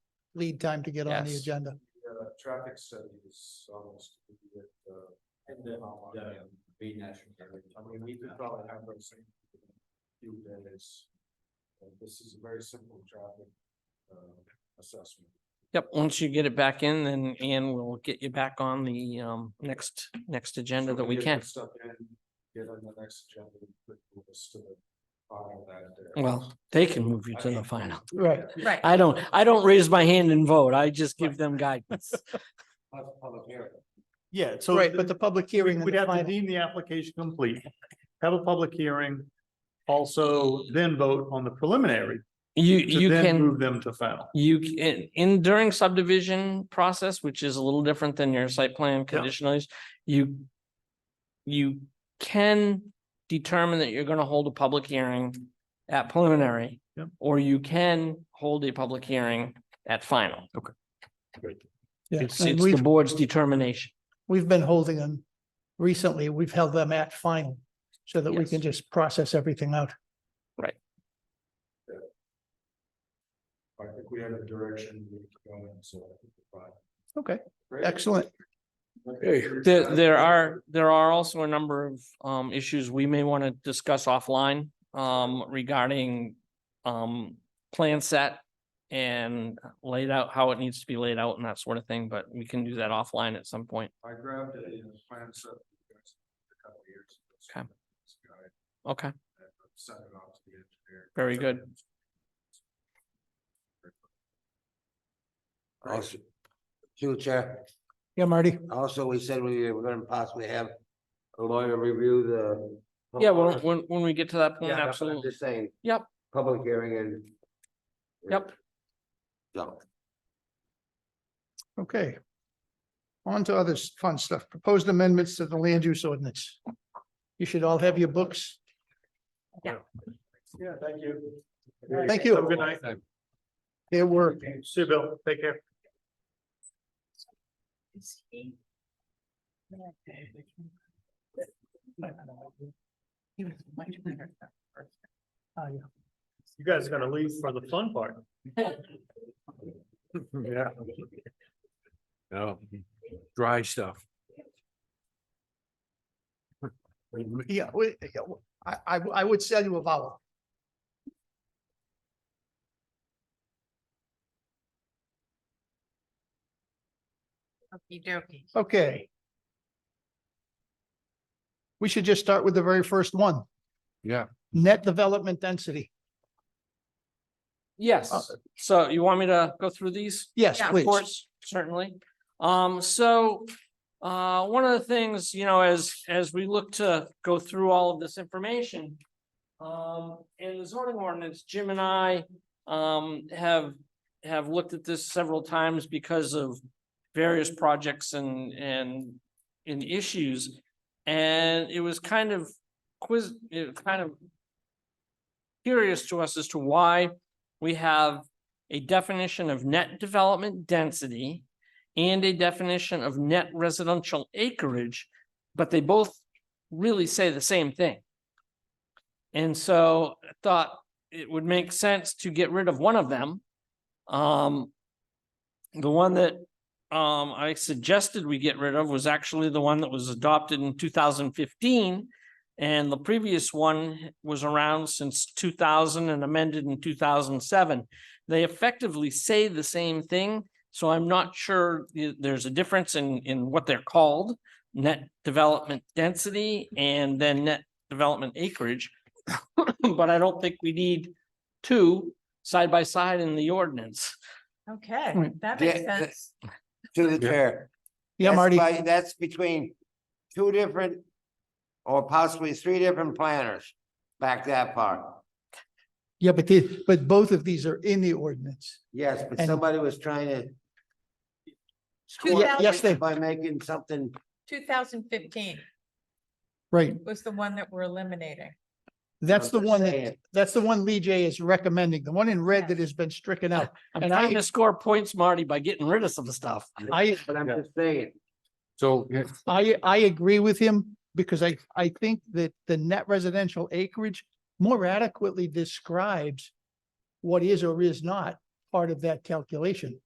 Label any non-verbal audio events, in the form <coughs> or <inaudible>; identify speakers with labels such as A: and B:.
A: lead time to get on the
B: Yes.
A: agenda.
C: The uh, traffic study is almost completed, uh. And then, yeah, the national. I mean, we could probably have those same few days. Uh, This is a very simple traffic, uh, assessment.
B: Yep, once you get it back in, then Ian will get you back on the um next, next agenda
C: So
B: that we
C: get
B: can.
C: this Stuff in, get on the next agenda, and put this to the final that day.
B: Well, they can move you to the final.
A: Right.
D: Right.
B: I don't, I don't raise my hand and vote. I just give them
E: <laughs>
B: guidance.
C: Plus public hearing.
E: Yeah, so.
A: Right,
E: th-
A: but the public
E: we-
A: hearing. and
E: We'd
A: the
E: have to
A: final-
E: deem the application complete, have a public hearing, also then vote on the preliminary.
B: You,
E: to
B: you
E: then
B: can,
E: Move them to final.
B: you can, in during subdivision process, which is a little different than your site plan conditional use, you you can determine that you're gonna hold a public hearing at preliminary.
E: Yep.
B: Or you can hold a public hearing at final.
A: Yeah,
B: It's,
A: and
B: it's the
A: we've,
B: board's determination.
A: we've been holding them recently. We've held them at final so that we
B: Yes.
A: can just process everything out.
C: I think we have a direction we can go in, so. I think we're fine.
A: Okay,
C: Great.
A: excellent.
B: There, there are, there are also a number of um issues we may want to discuss offline um regarding um plan set and laid out how it needs to be laid out and that sort of thing, but we can do that offline at some point.
C: I grabbed a you know, plan set for you guys a couple of years. ago, so
B: Okay.
C: it's got it,
B: Okay,
C: and I've Sent it off to the engineer.
B: Very good.
F: Also, through Chair,
A: Yeah, Marty,
F: also, we said we were gonna possibly have a lawyer review the.
B: yeah, well, when, when we get to that point,
F: Oh, Yeah, that's what I'm
B: absolutely.
F: Just saying.
B: Yep.
F: Public hearing and.
B: Yep.
F: So.
A: okay. On to other s- fun stuff. Proposed amendments to the land use ordinance. You should all have your books.
E: Yeah, thank you.
A: Thank you.
E: Have a good night.
A: There were,
E: See you, Bill. Take care.
A: Ah,
E: You guys are gonna leave for the
A: <laughs>
E: fun part.
G: Yeah. No, dry stuff.
A: yeah, we- yeah, w- I, I, I would sell you a vowel.
D: Okey dokey.
A: Okay. We should just start with the very first one.
G: Yeah.
A: Net development density.
B: Yes, so you want me to go through these?
A: Yes,
D: Yeah, of
B: Of
A: please.
B: course, certainly. Um, so, uh, one of the things, you know, as, as we look to go through all of this information. Um, in the zoning ordinance, Jim and I, um, have, have looked at this several times because of various projects and, and, and issues. And it was kind of quiz, it was kind of curious to us as to why we have a definition of net development density and a definition of net residential acreage, but they both really say the same thing. And so I thought it would make sense to get rid of one of them. Um, the one that um I suggested we get rid of was actually the one that was adopted in two thousand fifteen. And the previous one was around since two thousand and amended in two thousand seven they effectively say the same thing. So I'm not sure the- there's a difference in, in what they're called, net development density and then net development acreage. <coughs> But I don't think we need two side by side in the ordinance.
D: Okay,
A: Right.
D: that makes
F: Yeah,
D: sense.
F: To the chair.
A: Yeah,
F: That's
A: Marty,
F: by- That's between two different or possibly three different planners back that far.
A: yeah, but the, but both of these are in the ordinance.
F: Yes, but
A: And-
F: somebody was trying to.
D: Two
F: score
A: Yeah, yes,
D: thousand,
A: they,
F: By making something,
D: two thousand fifteen
A: right.
D: was the one that we're eliminating.
A: That's the
F: just
A: one that,
F: saying.
A: that's the one Lee J is recommending, the one in red that has been stricken out.
B: I'm
A: And
B: trying
A: I-
B: to score points, Marty, by getting rid of some stuff.
A: I,
F: but I'm just saying,
G: So, yeah,
A: I, I agree with him because I, I think that the net residential acreage more adequately describes what is or is not part of that calculation.